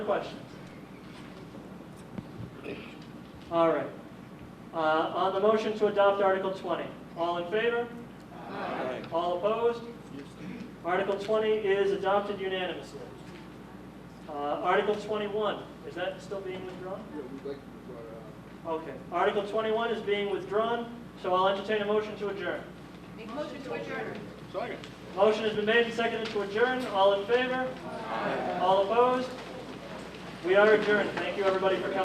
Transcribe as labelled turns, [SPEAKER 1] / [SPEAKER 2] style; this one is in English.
[SPEAKER 1] questions? All right. Uh, On the motion to adopt Article 20, all in favor? Aye. All opposed? Article 20 is adopted unanimously. Uh, Article 21, is that still being withdrawn?
[SPEAKER 2] Yeah, we'd like to be brought out.
[SPEAKER 1] Okay. Article 21 is being withdrawn, so I'll entertain a motion to adjourn.
[SPEAKER 3] Make motion to adjourn.
[SPEAKER 1] Motion has been made and seconded to adjourn. All in favor? All opposed? We are adjourned. Thank you, everybody, for coming.